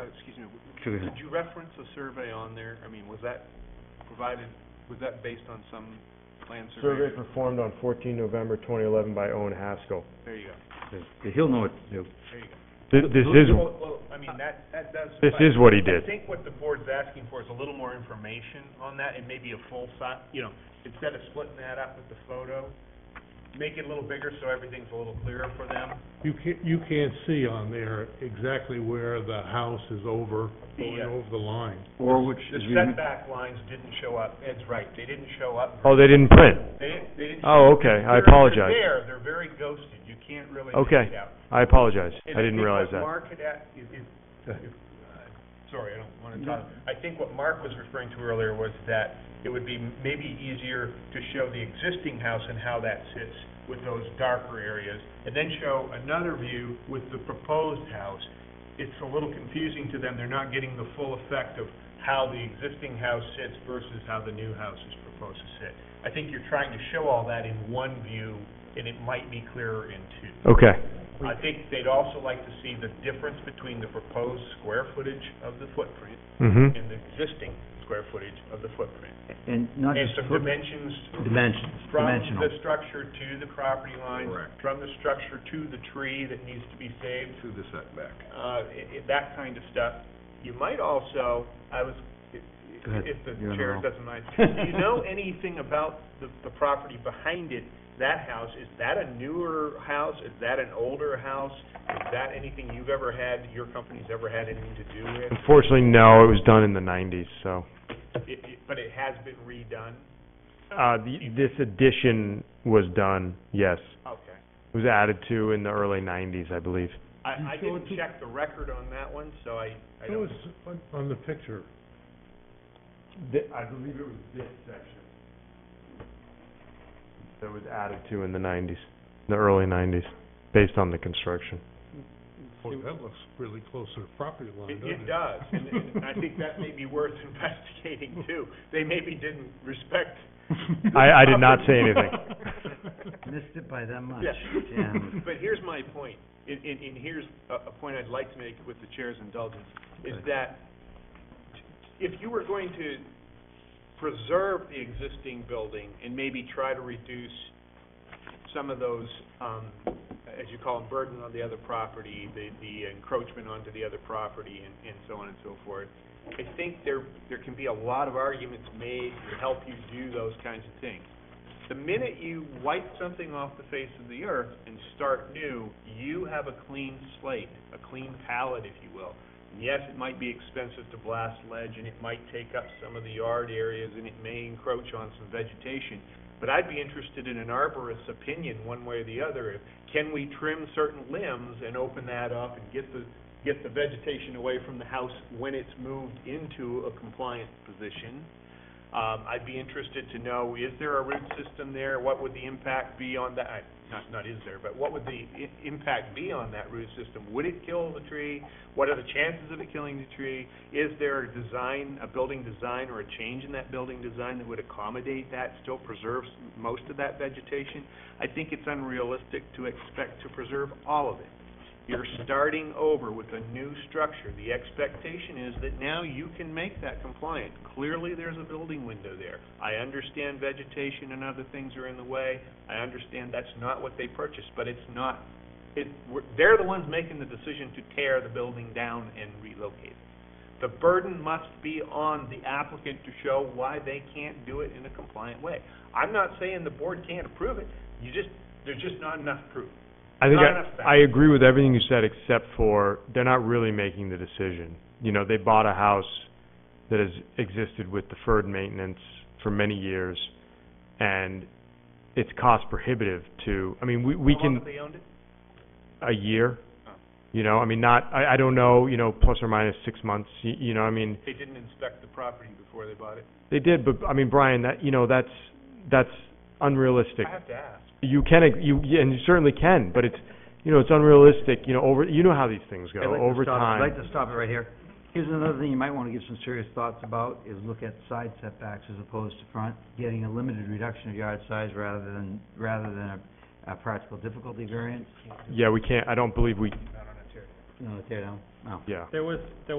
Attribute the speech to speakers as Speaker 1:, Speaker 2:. Speaker 1: Oh, excuse me, w-
Speaker 2: Go ahead.
Speaker 1: did you reference a survey on there? I mean, was that provided, was that based on some land
Speaker 3: Survey
Speaker 1: survey?
Speaker 3: performed on fourteen November twenty eleven by Owen Haskell.
Speaker 1: There you go,
Speaker 2: Yeah, He'll know it, he'll,
Speaker 1: there you go.
Speaker 4: Th- This is,
Speaker 1: Well, well, I mean, that, that does.
Speaker 4: this
Speaker 1: suffice.
Speaker 4: is what he
Speaker 1: I
Speaker 4: did.
Speaker 1: think what the board's asking for is a little more information on that, and maybe a full si- you know, instead of splitting that up with the photo, make it a little bigger so everything's a little clearer for them.
Speaker 5: You can't, you can't see on there exactly where the house is over, going
Speaker 1: Yeah.
Speaker 5: over the line.
Speaker 2: or which
Speaker 1: The
Speaker 2: is even,
Speaker 1: setback lines didn't show up, Ed's right, they didn't show up
Speaker 4: Oh, they didn't print.
Speaker 1: They, they didn't.
Speaker 4: Oh, okay, I
Speaker 1: They're-
Speaker 4: apologize.
Speaker 1: They're there, they're very ghosted, you can't really
Speaker 4: Okay.
Speaker 1: make it out.
Speaker 4: I apologize. I
Speaker 1: And
Speaker 4: didn't
Speaker 1: think
Speaker 4: realize
Speaker 1: what
Speaker 4: that.
Speaker 1: Mark had at- is- is- if- uh, sorry, I don't wanna talk, I think what Mark was referring to earlier was that it would be maybe easier to show the existing house and how that sits with those darker areas, and then show another view with the proposed house. It's a little confusing to them, they're not getting the full effect of how the existing house sits versus how the new house is proposed to sit. I think you're trying to show all that in one view, and it might be clearer in two.
Speaker 4: Okay,
Speaker 1: I think they'd also like to see the difference between the proposed square footage of the footprint
Speaker 4: mhm.
Speaker 1: and the existing square footage of the footprint.
Speaker 2: and not
Speaker 1: And
Speaker 2: just
Speaker 1: some
Speaker 2: foot,
Speaker 1: dimensions
Speaker 2: dimensions,
Speaker 1: from
Speaker 2: dimensional.
Speaker 1: the structure to the property line, from the structure to the tree that needs to be saved,
Speaker 6: to the setback.
Speaker 1: uh, i- i- that kind of stuff. You might also, I was, i- i-
Speaker 2: Go ahead.
Speaker 1: if the
Speaker 2: You're in the
Speaker 1: chair
Speaker 2: room.
Speaker 1: doesn't mind, do you know anything about the, the property behind it, that house? Is that a newer house? Is that an older house? Is that anything you've ever had, your company's ever had anything to do with?
Speaker 4: Unfortunately, no, it was done in the nineties, so.
Speaker 1: It, it, but it has been redone?
Speaker 4: Uh, the- this addition was done, yes.
Speaker 1: Okay.
Speaker 4: It was added to in the early nineties, I believe.
Speaker 5: You
Speaker 1: I, I
Speaker 5: sure
Speaker 1: didn't
Speaker 5: do-
Speaker 1: check the record on that one, so I, I
Speaker 5: Show
Speaker 1: don't.
Speaker 5: us on- on the picture.
Speaker 4: I believe it was this section. That was added to in the nineties, the early nineties, based on the construction.
Speaker 5: Boy, that looks really close to the property line,
Speaker 1: It,
Speaker 5: doesn't it?
Speaker 1: it does, and, and I think that may be worth investigating too. They maybe didn't respect.
Speaker 4: I, I did not say anything.
Speaker 2: Missed it by that much,
Speaker 1: Yeah.
Speaker 2: and
Speaker 1: But here's my point, and, and, and here's a, a point I'd like to make with the chair's indulgence, is that if you were going to preserve the existing building and maybe try to reduce some of those, um, as you call them, burden on the other property, the, the encroachment onto the other property and, and so on and so forth, I think there, there can be a lot of arguments made to help you do those kinds of things. The minute you wipe something off the face of the earth and start new, you have a clean slate, a clean palette, if you will. And Yes, it might be expensive to blast ledge, and it might take up some of the yard areas, and it may encroach on some vegetation. But I'd be interested in an arborist's opinion, one way or the other, if, can we trim certain limbs and open that up and get the, get the vegetation away from the house when it's moved into a compliant position? Um, I'd be interested to know, is there a root system there? What would the impact be on that, I- not, not is there, but what would the i- impact be on that root system? Would it kill the tree? What are the chances of it killing the tree? Is there a design, a building design or a change in that building design that would accommodate that, still preserves most of that vegetation? I think it's unrealistic to expect to preserve all of it. You're starting over with a new structure. The expectation is that now you can make that compliant. Clearly, there's a building window there. I understand vegetation and other things are in the way. I understand that's not what they purchased, but it's not, it, we're- they're the ones making the decision to tear the building down and relocate it. The burden must be on the applicant to show why they can't do it in a compliant way. I'm not saying the board can't approve it, you just, there's just not enough proof.
Speaker 4: I think
Speaker 1: Not enough
Speaker 4: I, I agree with everything you said except for they're not really making the decision. You know, they bought a house that has existed with deferred maintenance for many years and it's cost prohibitive to, I mean, we, we
Speaker 1: How long
Speaker 4: can,
Speaker 1: have they owned it?
Speaker 4: a year.
Speaker 1: Oh.
Speaker 4: You know, I mean, not, I, I don't know, you know, plus or minus six months, you, you know, I mean,
Speaker 1: They didn't inspect the property before they bought it?
Speaker 4: they did, but I mean, Brian, that, you know, that's, that's unrealistic.
Speaker 1: I have to ask.
Speaker 4: You can, ag- you, yeah, and you certainly can, but it's, you know, it's unrealistic, you know, over, you know how these things go,
Speaker 2: I'd like to
Speaker 4: over
Speaker 2: stop-
Speaker 4: time.
Speaker 2: I'd like to stop it right here. Here's another thing you might wanna give some serious thoughts about, is look at side setbacks as opposed to front, getting a limited reduction of yard size rather than, rather than a, a practical difficulty variance.
Speaker 4: Yeah, we can't, I don't believe we,
Speaker 2: No, tear down, no.
Speaker 4: yeah.
Speaker 7: There was, there was